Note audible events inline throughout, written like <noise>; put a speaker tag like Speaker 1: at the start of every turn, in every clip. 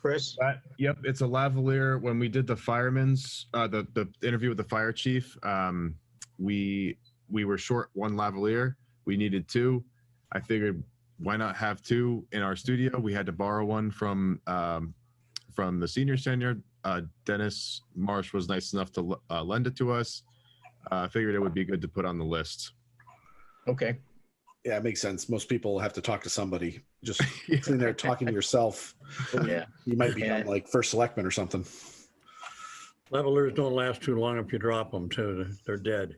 Speaker 1: Chris?
Speaker 2: That- yep, it's a lavalier. When we did the firemen's uh, the the interview with the fire chief, um, we we were short one lavalier. We needed two. I figured why not have two in our studio? We had to borrow one from um, from the senior center. Uh, Dennis Marsh was nice enough to l- uh, lend it to us. I uh, figured it would be good to put on the list. <laughs>
Speaker 1: Okay. <laughs>
Speaker 3: Yeah, it makes sense. Most people have to talk to somebody. Just sitting there talking to yourself,
Speaker 1: Yeah.
Speaker 3: you might be
Speaker 1: Yeah.
Speaker 3: like first selectman or something.
Speaker 4: Levelers don't last too long if you drop them too. They're dead.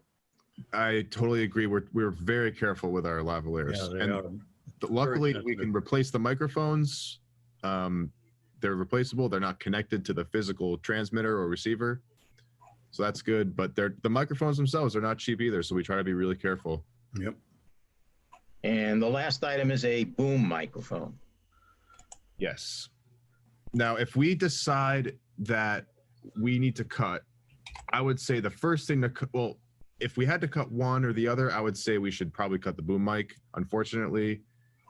Speaker 2: I totally agree. We're we're very careful with our lavaliers.
Speaker 4: Yeah, they
Speaker 2: And-
Speaker 4: are.
Speaker 2: But luckily, we
Speaker 4: sensitive.
Speaker 2: can replace the microphones. Um, they're replaceable. They're not connected to the physical transmitter or receiver, so that's good. But they're the microphones themselves are not cheap either, so we try to be really careful.
Speaker 4: Yep.
Speaker 1: And the last item is a boom microphone.
Speaker 2: Yes. Now, if we decide that we need to cut, I would say the first thing to cut, well, if we had to cut one or the other, I would say we should probably cut the boom mic. Unfortunately,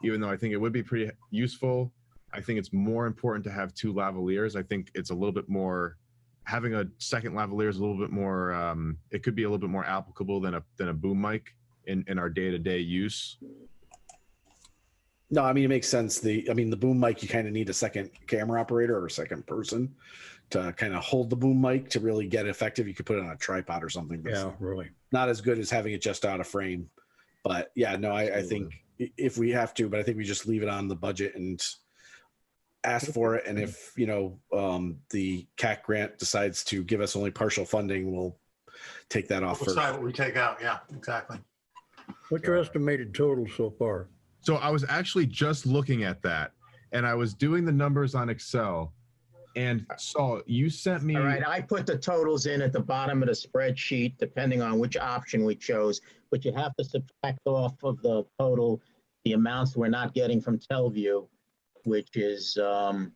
Speaker 2: even though I think it would be pretty useful, I think it's more important to have two lavaliers. I think it's a little bit more, having a second lavalier is a little bit more, um, it could be a little bit more applicable than a, than a boom mic in, in our day to day use.
Speaker 3: No, I mean it makes sense. The I mean the boom mic, you kind of need a second camera operator or a second person to kind of hold the boom mic to really get effective. You could put it on a tripod or something. but it's
Speaker 4: Yeah, really.
Speaker 3: Not as good as having it just out of frame. But yeah, no, I, I think i- if we have to, but I think we just leave it on the budget and ask for it. And if you know um, the CAC grant decides to give us only partial funding, we'll take that off
Speaker 5: We'll
Speaker 3: first.
Speaker 5: decide what we take out. Yeah, exactly.
Speaker 4: What's your estimated total so far?
Speaker 2: So I was actually just looking at that and I was doing the numbers on Excel and saw you sent me
Speaker 1: All right, I put the totals in at the bottom of the spreadsheet, depending on which option we chose, but you have to subtract off of the total the amounts we're not getting from Telview, which is, um,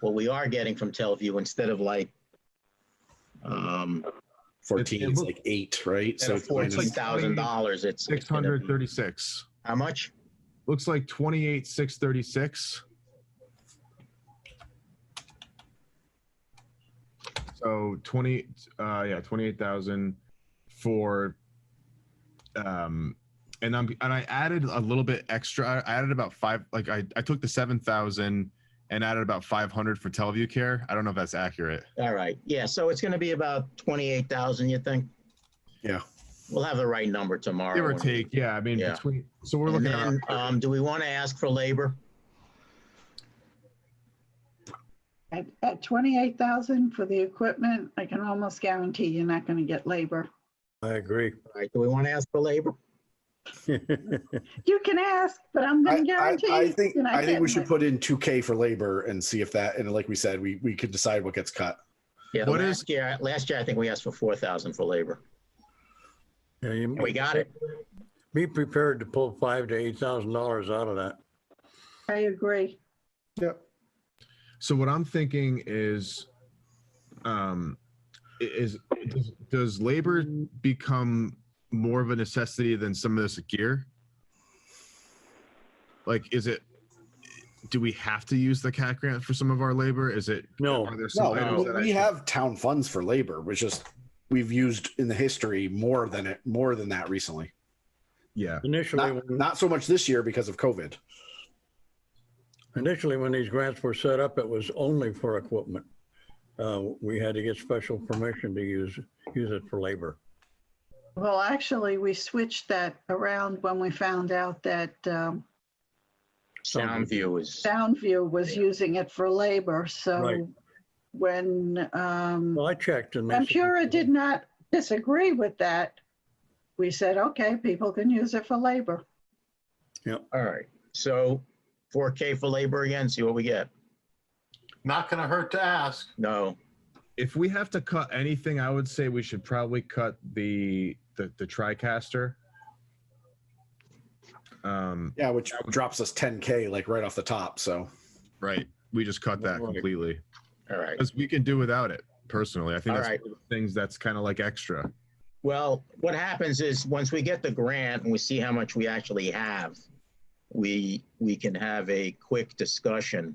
Speaker 1: what we are getting from Telview instead of like, um,
Speaker 2: It- it
Speaker 3: Fourteen is
Speaker 2: look-
Speaker 3: like eight, right? So it's minus-
Speaker 1: fourteen thousand dollars, it's. it's gonna be-
Speaker 2: 636.
Speaker 1: How much?
Speaker 2: Looks like 28 636. So 20 uh yeah, 28,000 for um and I'm and I added a little bit extra. I added about 5 like I I took the 7,000 and added about 500 for Teleview Care. I don't know if that's accurate.
Speaker 1: All right, yeah, so it's gonna be about twenty-eight thousand, you think?
Speaker 3: Yeah.
Speaker 1: We'll have the right number tomorrow.
Speaker 2: Give or
Speaker 1: when we-
Speaker 2: take, yeah. I mean,
Speaker 1: Yeah.
Speaker 2: between so we're
Speaker 1: And
Speaker 2: looking at
Speaker 1: then, um, do we want to ask for labor?
Speaker 6: At, at twenty-eight thousand for the equipment, I can almost guarantee you're not gonna get labor.
Speaker 4: I <laughs> agree.
Speaker 1: All right, do we want to ask for labor?
Speaker 6: You can ask, but I'm
Speaker 3: I,
Speaker 6: gonna
Speaker 3: I-
Speaker 6: guarantee.
Speaker 3: I
Speaker 6: you're
Speaker 3: think
Speaker 6: not
Speaker 3: I think we
Speaker 6: getting
Speaker 3: should
Speaker 6: it.
Speaker 3: put in two K for labor and see if that and like we said, we we could decide what gets cut.
Speaker 1: Yeah,
Speaker 2: What
Speaker 1: last year, last year, I think we asked for four thousand for labor.
Speaker 4: Yeah, you-
Speaker 1: And we got it.
Speaker 4: Be prepared to pull five to eight thousand dollars out of that.
Speaker 6: I agree.
Speaker 2: So what I'm thinking is, um, i- is does, does labor become more of a necessity than some of this gear? Like, is it? Do we have to use the CAT grant for some of our labor? Is it?
Speaker 4: No,
Speaker 2: Are there some
Speaker 3: No,
Speaker 2: items that I
Speaker 3: we
Speaker 2: should-
Speaker 3: have town funds for labor, which just we've used in the history more than it more than that recently.
Speaker 2: Yeah.
Speaker 4: initially,
Speaker 3: Not
Speaker 4: when-
Speaker 3: not so much this year because of COVID.
Speaker 4: initially when these grants were set up, it was only for equipment. Uh, we had to get special permission to use, use it for labor.
Speaker 6: Well, actually, we switched that around when we found out that, um,
Speaker 1: Sound view is,
Speaker 6: Soundview was
Speaker 1: Yeah.
Speaker 6: using it for labor,
Speaker 4: Right.
Speaker 6: so when, um,
Speaker 4: Well, I checked and. they said-
Speaker 6: Empura did not disagree with that, we said, okay, people can use it for labor.
Speaker 1: all right. So four K for labor again, see what we get.
Speaker 5: Not going to hurt to ask.
Speaker 1: No,
Speaker 2: If we have to cut anything, I would say we should probably cut the the, the TriCaster. Um,
Speaker 3: Yeah, which drops us ten K like right off the top. So
Speaker 2: right. We just cut that
Speaker 4: Right.
Speaker 2: completely.
Speaker 1: all right,
Speaker 2: because we can do without it personally. I think
Speaker 1: all
Speaker 2: that's
Speaker 1: right.
Speaker 2: one of the things that's kind of like extra.
Speaker 1: Well, what happens is, once we get the grant and we see how much we actually have, we, we can have a quick discussion